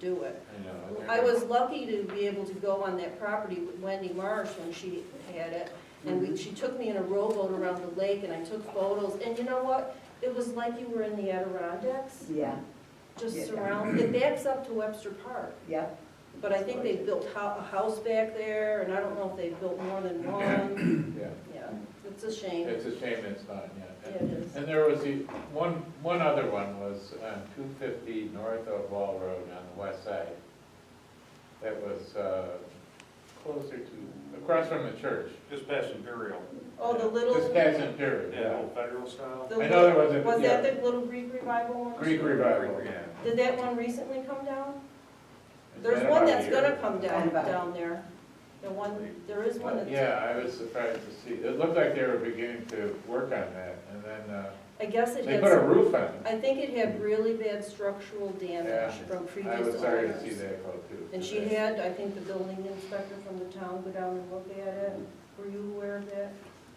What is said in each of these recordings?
do it. I know. I was lucky to be able to go on that property with Wendy Marsh when she had it. And Mm-hmm. we, she took me in a rowboat around the lake and I took photos. And you know what? It was like you were in the Adirondacks, Yeah, just Yeah. surrounded. It backs up to Webster Park. yeah. But I think they built hou- a house back there and I don't know if they built more than one. Yeah, Yeah, it's a shame. it's a shame it's not Yeah, yet. it is. And there was the, one, one other one was on two fifty north of Wall Road on the west side. That was, uh, closer to, across from the church. Just past Imperial, Oh, the little. Just past Imperial. yeah, old federal style. the I know there little- was a- Was yeah. that the little Greek revival one? Greek revival. Yeah. Did that one recently come down? It's There's been one about a that's year. gonna come down, Come back. down there. The one, there is one that's, Yeah, I was surprised to see, it looked like they were beginning to work on that, and then, uh, I guess it they put a had, roof on it. I think it had really bad structural Yeah. damage from previous I owners. was sorry to see that go too. And she had, I think, the building inspector from the town go down and look at it. Were you aware of that?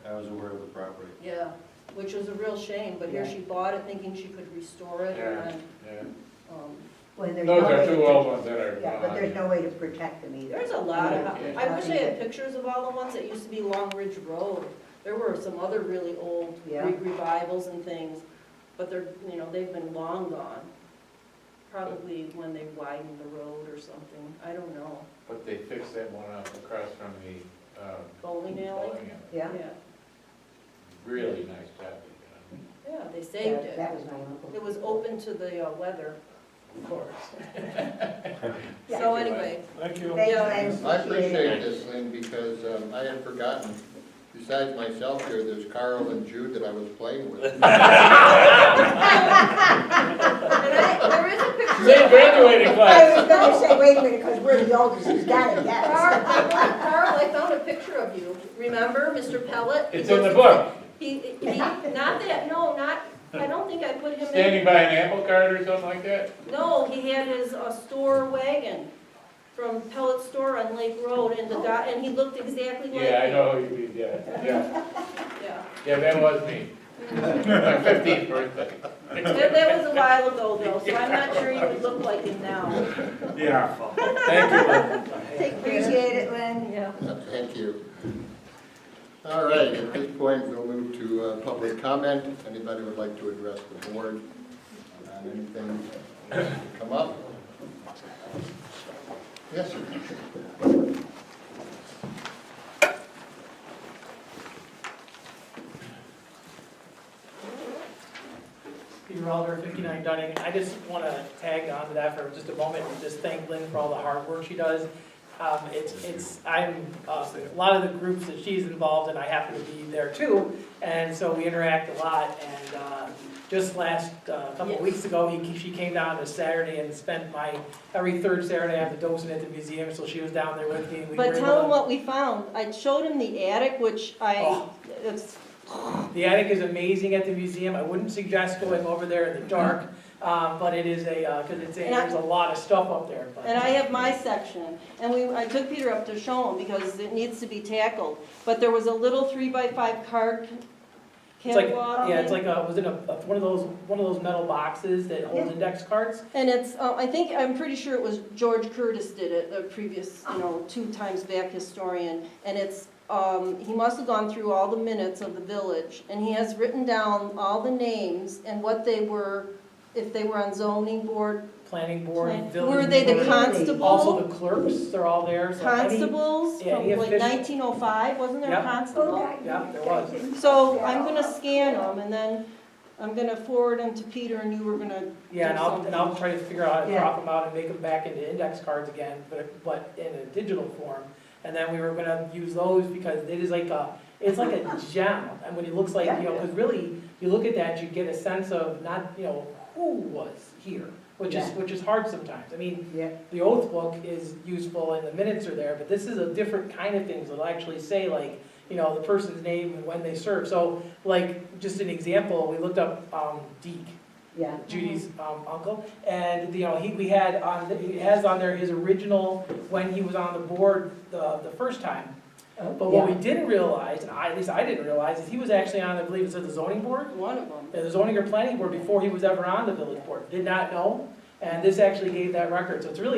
I was aware of the property. Yeah. Which was a real shame, but here Yeah. she bought it thinking she could restore it Yeah. and, Yeah. um, Well, there's Those no way are to two old ones that are. protect- Yeah, but there's gone. no way to protect them either. There's a lot of, Yeah. I wish I had pictures of all the ones that used to be Long Ridge Road. There were some other really old Yeah. Greek revivals and things, but they're, you know, they've been long gone. Probably when they widened the road or something, I don't know. But they fixed that one up across from the, um, Bowling alley? bowling alley. Yeah. Really nice job they did. Yeah, they saved That it. that was my uncle. It was open to the uh, weather. Of course. Yeah. So anyway, Thank you. Thanks, Yeah. I appreciate it. I appreciate this thing because um, I had forgotten, besides myself here, there's Carl and Jude that I was playing with. and I, there is a picture. They graduated I class. was gonna say, wait a minute, because we're the oldest, who's got it, yes. Carl, Carl, I found a picture of you. Remember, Mr. Pellet? It's in the book, He, he, not that, no, not, I don't think I put him in. standing by an apple cart or something like that. No, he had his, uh, store wagon from Pellet Store on Lake Road and the guy, and he looked exactly like. Yeah, I me. know who you mean, yeah, yeah, Yeah. yeah, that was me. My fifteenth birthday. That, that was a while ago though, so I'm not sure you would look like him now. Yeah. Thank you, Lynn. Appreciate it, Lynn. Yeah. Thank you. All right, at this point, we'll move to uh, public comment. If Anybody would like to address the board on anything that's come up? Yes, sir. Peter Alder, 59 Dunning. I just want to tag on to that for just a moment and just thank Lynn for all the hard work she does. Um, It's, it's, I'm, uh, a lot of the groups that she's involved in, I happen to be there too, and so we interact a lot. And uh, just last, uh couple Yes. of weeks ago, he- she came down on a Saturday and spent my, every third Saturday, I have the docent at the museum, so she was down there with me. and we were But able tell to- him what we found. I showed him the attic, which I, Oh. it's, The attic is amazing at the museum. I wouldn't suggest going over there in the dark, um, but it is a, uh 'cause cause it's a, And I- there's a lot of stuff up there. but- and I have my section. And we, I took Peter up to show him because it needs to be tackled. But there was a little three by five card. It's like, catalog yeah, thing. it's like a, was it a, a- one of those, one of those metal boxes that holds index cards? And it's, uh, I think, I'm pretty sure it was George Curtis did it, the previous, you know, two times back historian. And it's, um, he must have gone through all the minutes of the village, and he has written down all the names and what they were, if they were on zoning board. Planning board, plan- village. Were they the board. Also, constable, the clerks, they're all there, so any- constables yeah, from any like official- nineteen oh five, wasn't there a Yep. Oh, constable? Yeah, there was. So I'm gonna scan them, and then I'm gonna forward them to Peter, and you were gonna, Yeah, and I'll, and I'll try to figure out how to Yeah. crop them out and make them back into index cards again, but, but in a digital form. And then we were gonna use those because it is like a, it's like a gem, and when it looks like, you know, because really, you look at that, you get a sense of not, you know, who was here, which is, Yeah. which is hard sometimes. I mean, Yeah. the oath book is useful and the minutes are there, but this is a different kind of things that'll actually say like, you know, the person's name and when they served. So like, just an example, we looked up, um, Deke, Yeah, Judy's Mm-hmm. um, uncle, and, you know, he, we had on, he has on there his original, when he was on the board the, the first time. Oh, But what we yeah, didn't realize, and I, at least I didn't realize, is he was actually on, I believe it said the zoning board, one of them. the zoning or planning board before he was ever on the village board. Did not know, And this actually gave that record, so it's really